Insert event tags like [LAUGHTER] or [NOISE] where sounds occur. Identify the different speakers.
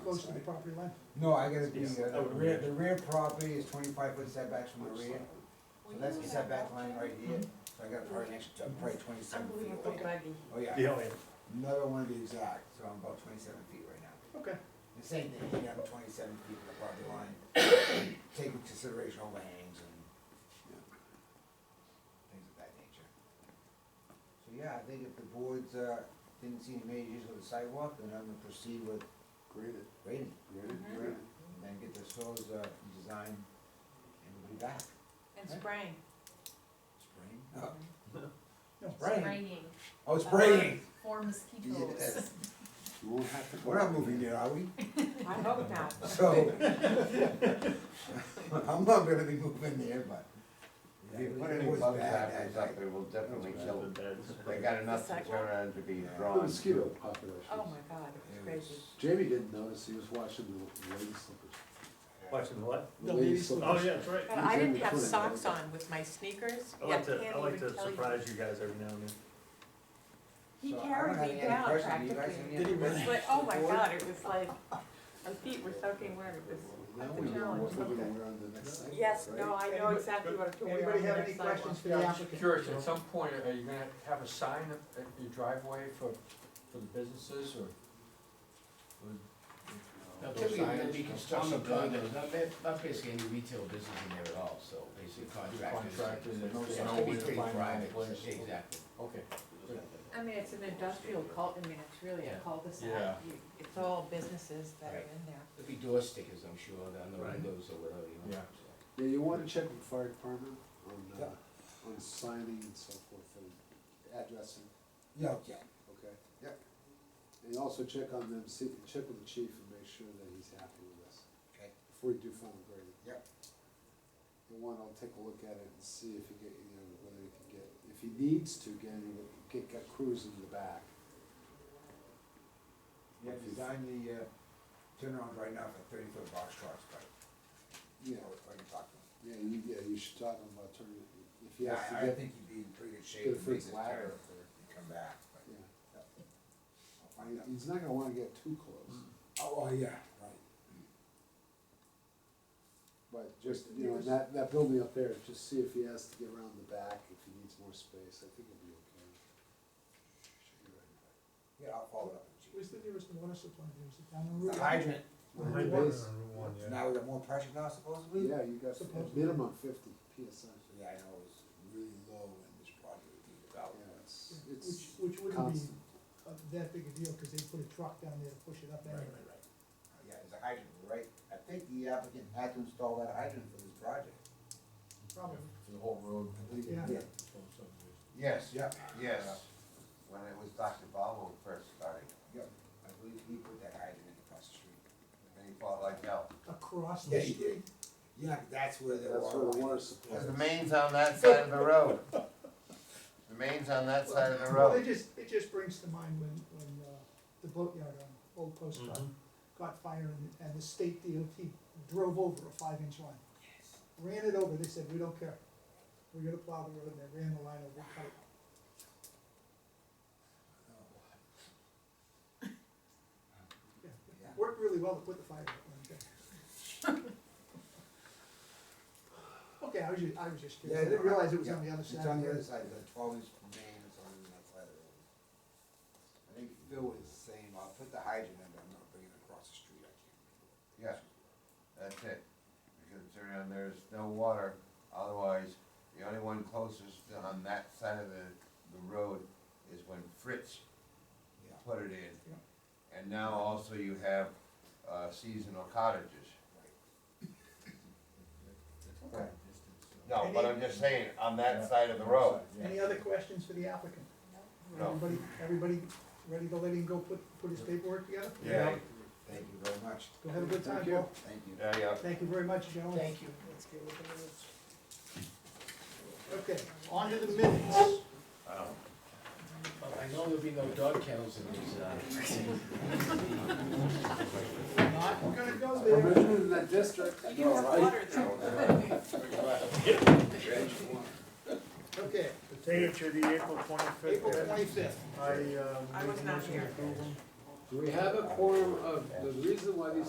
Speaker 1: close to the property line?
Speaker 2: No, I gotta be,
Speaker 3: Yes,
Speaker 2: uh,
Speaker 3: I
Speaker 2: the
Speaker 3: would
Speaker 2: rear,
Speaker 3: agree.
Speaker 2: the rear property is twenty-five foot setbacks from the rear, so that's the setback line right here, so I got probably next, uh, probably twenty-seven feet
Speaker 4: Unbelievable
Speaker 2: away.
Speaker 4: buggy.
Speaker 2: Oh, yeah,
Speaker 3: Yeah, oh, yeah.
Speaker 2: another one to be exact, so I'm about twenty-seven feet right now.
Speaker 1: Okay,
Speaker 2: The same thing, you have twenty-seven feet from the property line, take into consideration overhangs and, you know, things of that nature. So, yeah, I think if the boards, uh, didn't see any major issues with the sidewalk, then I'm gonna proceed with
Speaker 5: Granted,
Speaker 2: grading.
Speaker 5: granted,
Speaker 4: Mhm.
Speaker 5: granted.
Speaker 2: and then get the soils, uh, designed, and we'll be back.
Speaker 4: And spraying.
Speaker 2: Spring? No,
Speaker 1: no,
Speaker 2: spring.
Speaker 6: Spraying.
Speaker 2: Oh, spraying!
Speaker 6: For mosquitoes.
Speaker 4: [LAUGHS]
Speaker 2: Yes.
Speaker 5: You won't have to go.
Speaker 2: We're not moving yet, are we?
Speaker 4: I hope not.
Speaker 2: So, I'm not gonna be moving there, but.
Speaker 7: If you put
Speaker 2: It
Speaker 7: any
Speaker 2: was
Speaker 7: bug
Speaker 2: bad,
Speaker 7: zappers
Speaker 2: I-
Speaker 7: up, it will definitely kill them.
Speaker 3: That's bad.
Speaker 7: They got enough to turn
Speaker 4: sidewalk?
Speaker 7: around to be
Speaker 2: Yeah.
Speaker 5: The
Speaker 7: drawn.
Speaker 5: mosquito population.
Speaker 4: Oh my God,
Speaker 2: it was-
Speaker 4: it's crazy.
Speaker 5: Jamie didn't notice, he was watching the lady slippers.
Speaker 3: Watching the what?
Speaker 5: The
Speaker 1: The
Speaker 5: lady
Speaker 1: lady
Speaker 5: slippers.
Speaker 3: Oh, yeah, that's right.
Speaker 4: But I didn't have socks on with my sneakers.
Speaker 3: I
Speaker 4: Yeah,
Speaker 3: like to,
Speaker 4: can't
Speaker 3: I like
Speaker 4: even
Speaker 3: to
Speaker 4: tell you.
Speaker 3: surprise you guys every now and then.
Speaker 4: He
Speaker 2: So I don't
Speaker 4: carried
Speaker 2: have any
Speaker 4: me
Speaker 2: other
Speaker 4: down
Speaker 2: questions. Do you guys have
Speaker 4: practically.
Speaker 2: any other
Speaker 3: Did he really?
Speaker 4: It's
Speaker 2: questions
Speaker 4: like, oh
Speaker 2: for
Speaker 4: my
Speaker 2: the board?
Speaker 4: God, it was like, my feet were soaking wet, it
Speaker 5: Now
Speaker 4: was
Speaker 5: we
Speaker 4: a
Speaker 5: know
Speaker 4: challenge.
Speaker 5: what we're gonna wear on the next sidewalk,
Speaker 4: Yes,
Speaker 5: right?
Speaker 4: no, I know exactly what to wear
Speaker 1: Anybody
Speaker 4: on the
Speaker 1: have any
Speaker 4: next sidewalk.
Speaker 1: questions for the applicant?
Speaker 8: Curious, at some point, are you gonna have a sign at at your driveway for, for the businesses or?
Speaker 9: No, there's gonna be construction done, there's not, not basically any retail business in there at all, so basically contractors.
Speaker 8: Contractors and no
Speaker 9: It's
Speaker 8: snow,
Speaker 9: gonna be
Speaker 8: winter
Speaker 9: pretty
Speaker 8: fine,
Speaker 9: private,
Speaker 8: place.
Speaker 9: exactly.
Speaker 8: Okay,
Speaker 4: I mean, it's an industrial cul, I mean, it's really
Speaker 9: Yeah.
Speaker 4: a cul-de-sac.
Speaker 8: Yeah.
Speaker 4: You- It's all businesses that are
Speaker 9: Right.
Speaker 4: in there.
Speaker 9: There'll be door stickers, I'm sure, on the
Speaker 3: Right.
Speaker 9: windows or whatever, you know.
Speaker 8: Yeah.
Speaker 9: so.
Speaker 5: Yeah, you wanna check with the fire department on, uh,
Speaker 2: Yeah.
Speaker 5: on signing and so forth, and addressing,
Speaker 2: Yeah, yeah,
Speaker 5: okay?
Speaker 2: Yep.
Speaker 5: And you also check on them, see, check with the chief and make sure that he's happy with this,
Speaker 2: okay,
Speaker 5: before you do final grading.
Speaker 2: Yep.
Speaker 5: You wanna take a look at it and see if you get, you know, whether you can get, if he needs to, get, any- get, get crews in the back.
Speaker 2: yeah, design the, uh, turnaround right now for thirty foot box trucks, but,
Speaker 5: Yeah,
Speaker 2: you know, if I can talk to him.
Speaker 5: yeah, you, yeah, you should talk about turning, if he
Speaker 2: Yeah,
Speaker 5: has to
Speaker 2: I, I
Speaker 5: get,
Speaker 2: think he'd be in pretty good
Speaker 5: Get a
Speaker 2: shape if
Speaker 5: free
Speaker 2: he gets
Speaker 5: ladder.
Speaker 2: tired if he come back, but.
Speaker 5: yeah.
Speaker 2: I'll
Speaker 5: I,
Speaker 2: find out.
Speaker 5: he's not gonna wanna get too close,
Speaker 2: Oh, oh, yeah, right.
Speaker 5: but just, you know, that, that building up there, just see if he has to get around the back, if he needs more space, I think it'll be okay. Should be right.
Speaker 2: Yeah, I'll follow up with you.
Speaker 1: Where's the nearest water supply, there's it down the road?
Speaker 2: The hydrant,
Speaker 5: Well,
Speaker 3: Water
Speaker 5: base-
Speaker 3: on Route one, yeah.
Speaker 2: now we got more pressure now supposedly?
Speaker 5: Yeah, you got
Speaker 1: Supposedly.
Speaker 5: a minimum fifty PSI.
Speaker 2: So, Yeah, I know it's really low in this project would be
Speaker 5: Yeah,
Speaker 2: about.
Speaker 5: it's,
Speaker 1: Which,
Speaker 5: it's
Speaker 1: which wouldn't be
Speaker 5: constant.
Speaker 1: uh, that big a deal, cause they put a truck down there to push it up
Speaker 2: Right,
Speaker 1: anyway.
Speaker 2: right, right. Uh, Yeah, it's a hydrant, right? I think the applicant had to install that hydrant for this project.
Speaker 1: Probably,
Speaker 8: for the whole road.
Speaker 1: Yeah.
Speaker 7: Yes,
Speaker 2: Yeah.
Speaker 7: yes.
Speaker 2: Uh,
Speaker 7: When it was Dr. Bobo first starting,
Speaker 2: Yep, I believe he put that hydrant in across the street.
Speaker 7: then he fought like hell.
Speaker 1: across
Speaker 2: Yeah,
Speaker 1: the
Speaker 2: he
Speaker 1: street.
Speaker 2: did. Yeah, that's where the water.
Speaker 5: That's where the
Speaker 2: line
Speaker 5: water
Speaker 2: is.
Speaker 5: supply.
Speaker 7: Cause the main's on that side of the road. The main's on that side of the
Speaker 1: Well, it
Speaker 7: road.
Speaker 1: just, it just brings to mind when, when, uh, the boatyard on Old Post Road
Speaker 3: Mhm.
Speaker 1: caught fire and, and the state DOT drove over a five inch line. Ran it over, they said, we don't care, we're gonna plow the road, and they ran the line over, cut it. Yeah,
Speaker 2: Yeah.
Speaker 1: it Worked really well to put the fire out one [LAUGHS] Okay, I was ju- I was just
Speaker 2: Yeah,
Speaker 1: curious, I didn't realize it was on the
Speaker 2: yeah,
Speaker 1: other side.
Speaker 2: It's on the
Speaker 1: of
Speaker 2: other side, the twelve inch main is on that side of the road. I think Phil was saying, I'll put the hydrant in, but I'm not bringing it across the street, I can't.
Speaker 7: Yeah, that's it. Because around there's no water, otherwise, the only one closest on that side of the, the road is when Fritz
Speaker 2: Yeah.
Speaker 7: put it
Speaker 1: Yeah.
Speaker 7: in. And now also you have, uh, seasonal cottages.
Speaker 2: Okay.
Speaker 7: No, but I'm just saying, on that side of the road.
Speaker 1: Any other questions for the applicant?
Speaker 7: No.
Speaker 1: Everybody, everybody ready to let him go put, put his paperwork together?
Speaker 7: Yeah,
Speaker 2: Thank you very much.
Speaker 1: Go have a good time,
Speaker 5: Thank you.
Speaker 1: Paul.
Speaker 2: Thank you.
Speaker 7: yeah, yeah.
Speaker 1: Thank you very much, gentlemen.
Speaker 9: Thank you.
Speaker 1: Let's get with the minutes. Okay, on to the minutes.
Speaker 3: Um,
Speaker 9: Well, I know there'll be no dog kennels in these, uh,
Speaker 1: Not gonna go
Speaker 5: We're
Speaker 1: there.
Speaker 5: living in that district.
Speaker 4: You have water there.
Speaker 1: Okay,
Speaker 3: The Date to the April
Speaker 1: April
Speaker 3: twenty-fifth,
Speaker 1: twenty-fifth.
Speaker 3: I, um.
Speaker 4: I was
Speaker 3: make a
Speaker 4: not
Speaker 3: motion to
Speaker 4: here.
Speaker 3: approve 'em.
Speaker 5: Do we have a quorum of, the reason why these